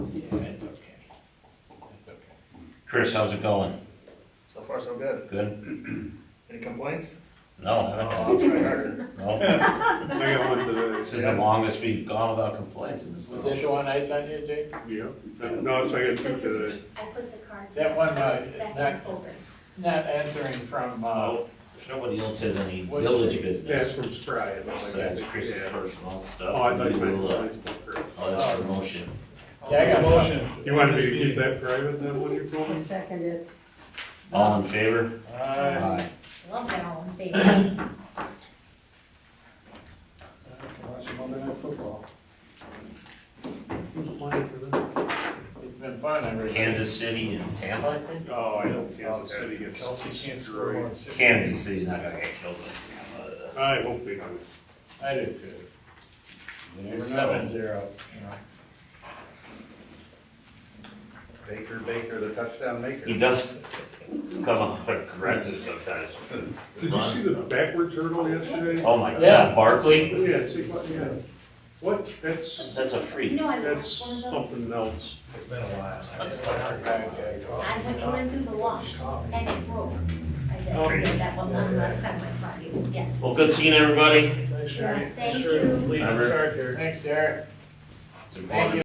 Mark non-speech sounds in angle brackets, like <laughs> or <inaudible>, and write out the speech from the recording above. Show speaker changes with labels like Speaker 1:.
Speaker 1: Chris, how's it going?
Speaker 2: So far, so good.
Speaker 1: Good?
Speaker 2: Any complaints?
Speaker 1: No, I haven't got-
Speaker 2: I'll try <laughs> harder.
Speaker 1: no.
Speaker 3: I got one today.
Speaker 1: This is the longest we've gone without complaints in this
Speaker 4: Was
Speaker 1: village.
Speaker 4: this one ice on you, Jake?
Speaker 3: Yeah, no, so I got two today.
Speaker 5: I put the cards.
Speaker 4: That one, uh,
Speaker 5: back in the
Speaker 4: that-
Speaker 5: folder.
Speaker 4: Not answering from, uh,
Speaker 1: Oh, Nobody else has any
Speaker 4: What's
Speaker 1: village
Speaker 4: the-
Speaker 3: That's
Speaker 1: business.
Speaker 3: from Spry. I
Speaker 1: So
Speaker 3: don't like
Speaker 1: that's
Speaker 3: that.
Speaker 1: Chris's
Speaker 3: Yeah.
Speaker 1: personal stuff.
Speaker 3: Oh, I thought you
Speaker 1: We will,
Speaker 3: meant.
Speaker 1: uh, Oh, that's for motion.
Speaker 4: yeah, I got one.
Speaker 3: You wanted me to keep that private, that one you told me?
Speaker 6: Second it.
Speaker 1: All in favor? Aye.
Speaker 5: Love that all in favor.
Speaker 3: Who's applying for that?
Speaker 4: It's been fun, everybody.
Speaker 1: Kansas City and Tampa, I think?
Speaker 3: Oh, I hope Kansas City gets.
Speaker 2: Kelsey can't score
Speaker 3: destroyed.
Speaker 2: more than six.
Speaker 1: Kansas City's not gonna get killed by Tampa. uh,
Speaker 3: I hope they do.
Speaker 4: I do too.
Speaker 1: we never know.
Speaker 4: Seven zero.
Speaker 2: Baker, Baker, the touchdown
Speaker 1: He
Speaker 2: maker.
Speaker 1: does come off aggressive sometimes.
Speaker 3: Did you see the backwards hurdle yesterday?
Speaker 1: Oh my God,
Speaker 4: Yeah.
Speaker 1: Barkley?
Speaker 3: Yeah, see, what, yeah. What, that's,
Speaker 1: That's a freak.
Speaker 5: No, I
Speaker 3: that's
Speaker 5: lost one of those.
Speaker 3: something else.
Speaker 2: It's been a
Speaker 5: I went, it went through the wall and it broke. I did,
Speaker 3: Okay.
Speaker 5: that one, last time I saw you, yes.
Speaker 1: Well, good seeing everybody.
Speaker 2: Thanks, Jerry.
Speaker 5: Thank you.
Speaker 2: Leading the charge here.
Speaker 4: Thanks, Derek.
Speaker 1: It's a
Speaker 4: Thank you.